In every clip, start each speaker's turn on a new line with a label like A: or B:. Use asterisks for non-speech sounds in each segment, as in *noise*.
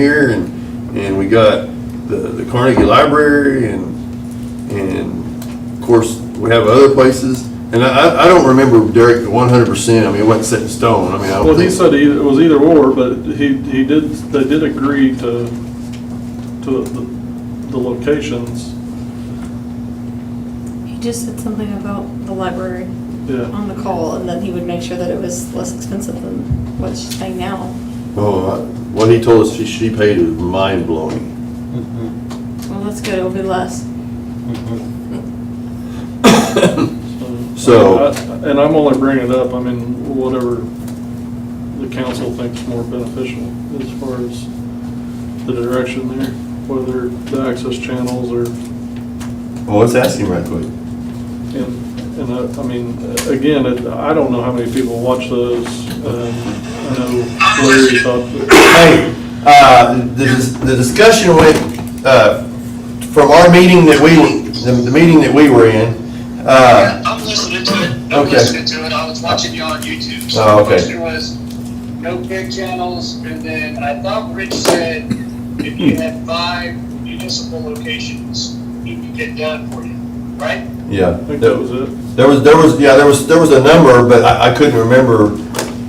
A: here and, and we got the, the Carnegie Library and, and of course, we have other places. And I, I- I don't remember Derek one hundred percent, I mean, it wasn't set in stone, I mean, I don't
B: Well, he
A: think.
B: said either, it was either or, but he, he did, they did agree to, to the, the locations,
C: He just said something about the library
B: yeah.
C: on the call, and then he would make sure that it was less expensive than what she's paying now.
A: Oh, I- what he told us she, she paid was mind *coughs* blowing.
C: Well, that's good, it'll be less.
A: So-
B: I- And I'm only bringing it up, I mean, whatever the council thinks more beneficial as far as the direction there, whether the access channels or,
A: Well, let's ask him right quick.
B: and, and I, I mean, again, it- I don't know how many people watch those. um, I know Larry thought,
A: Hey, uh, the, dis- the discussion went, uh, from our meeting that we, the, the meeting that we were in, uh,
D: Yeah, I'm listening to it.
A: Okay.
D: I'm listening to it. I was watching you on YouTube. So
A: Oh,
D: the
A: okay.
D: question was, no big channels, and then I thought Rich said if you had five municipal locations, you could get done for you, right?
A: yeah.
B: I think that was it.
A: There was, there was, yeah, there was, there was a number, but I, I couldn't remember.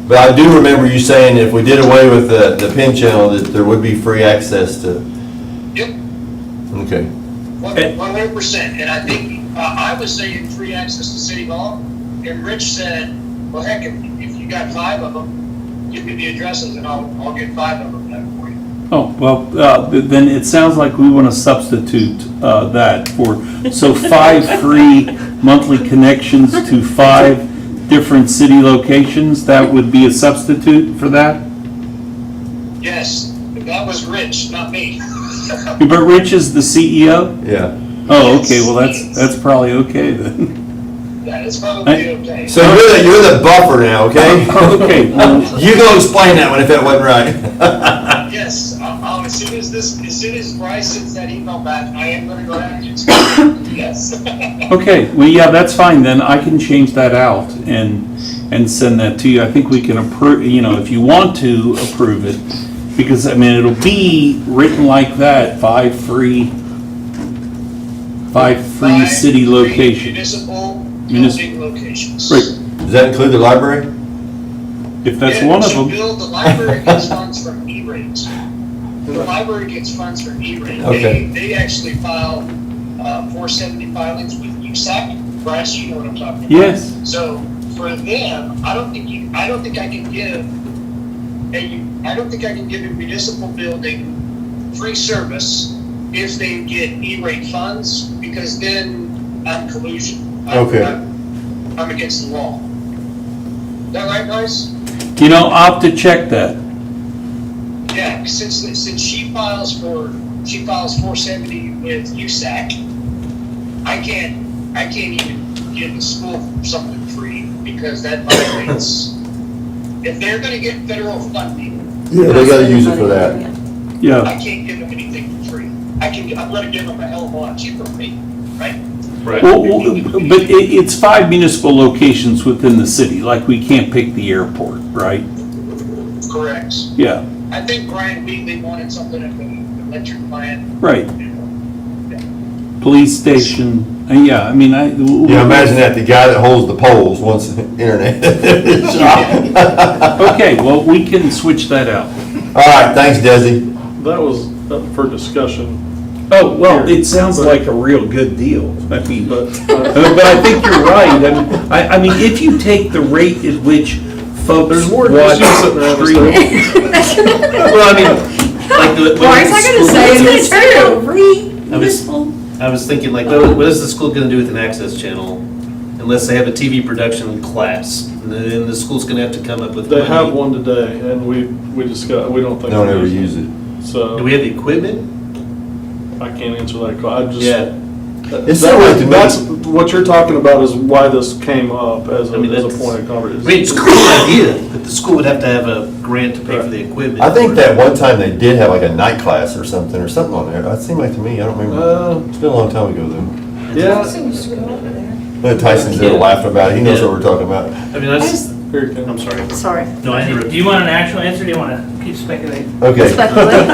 A: But I do remember you saying if we did away with the, the pin channel, that there would be free access to,
D: Yep,
A: okay.
D: one hundred percent. And I think, uh, I was saying free access to City Hall, and Rich said, well, heck, if, if you got five of them, give me the addresses and I'll, I'll get five of them done for you.
E: Oh, well, uh, th- then it sounds like we want to substitute uh, that for, so five free monthly connections to five different city locations, that would be a substitute for that?
D: Yes, that was Rich, not me. *laughs*
E: But Rich is the CEO?
A: Yeah.
E: Oh, okay, well, that's, that's probably okay then.
D: That is probably okay.
A: So you're the, you're the buffer now, *laughs* okay?
E: Okay, well,
A: You go explain that one if that wasn't right.
D: Yes, um, um, as soon as this, as soon as Bryce sends that email back, I am gonna go ahead and explain.
E: *coughs*
D: it. Yes.
E: okay, well, yeah, that's fine then, I can change that out and, and send that to you. I think we can approve, you know, if you want to approve it, because, I mean, it'll be written like that, five free, five free
D: Five
E: city
D: free
E: locations.
D: Municipal
E: Municipal.
D: building locations.
E: Right,
A: Does that include the library?
E: if that's
D: Yeah,
E: one of
D: to
E: them,
D: build, the library gets funds from E-rates. The library gets funds from E-rate.
A: Okay.
D: They, they actually file, uh, four seventy filings with USAC. Bryce, you know what I'm talking about.
E: yes.
D: So for them, I don't think you, I don't think I can give a, I don't think I can give a municipal building free service if they get E-rate funds, because then I'm collusion. I'm-
A: Okay.
D: I'm- I'm against the law. Is that right, guys?
E: You know, I'll have to check that.
D: Yeah, since, since she files for, she files four seventy with USAC, I can't, I can't even give the school something free because that violates. If they're gonna get federal funding,
A: Yeah, they gotta use it for that.
E: Yeah,
D: I can't give them anything for free. I can, I'm gonna give them a hell of a lot cheaper rate, right?
E: well, well, but it, it's five municipal locations within the city, like we can't pick the airport, right?
D: Correct.
E: Yeah,
D: I think Brian Wheatley wanted something at the electric plant.
E: right. Police station, uh, yeah, I mean, I.
A: Yeah, imagine that, the guy that holds the poles wants *laughs* internet. *laughs*
E: Okay, well, we can switch that out.
A: All right, thanks, Desi.
B: That was up for discussion,
E: Oh, well, it sounds like a real good deal. I mean, but,
F: *laughs*
E: uh, but I think you're right. I mean, I, I mean, if you take the rate at which folks
B: There's more
E: watch.
B: issues sitting around this
E: streaming- Well, I mean, like the.
F: Why is I gonna say it?
C: It's true.
F: I was, I was thinking like, what what is the school gonna do with an access channel? Unless they have a TV production class, and then the school's gonna have to come up with money.
B: they have one today, and we, we discuss, we don't think.
A: Don't
B: we
A: ever use it.
B: So,
F: Do we have the equipment?
B: I can't answer that question, I just. that-
A: It's so weird to me.
B: That's, what you're talking about is why this came up as a,
F: I mean,
B: as a
F: that's-
B: point of
F: I mean, it's a
B: conversation.
F: cool idea, but the school would have to have a grant to pay for the equipment.
A: I think that one time they did have like a night class or something, or something on there. That seemed like to me, I don't remember.
B: Uh,
A: It's been a long time ago though.
B: yeah,
A: But Tyson's there laughing about it, he knows what we're talking about.
F: I mean, I just,
B: here it comes.
F: I'm sorry,
C: Sorry.
F: no, I interrupted.
G: Do you want an actual answer, or do you want to keep speculating?
A: Okay.
C: Speculate.
F: *laughs*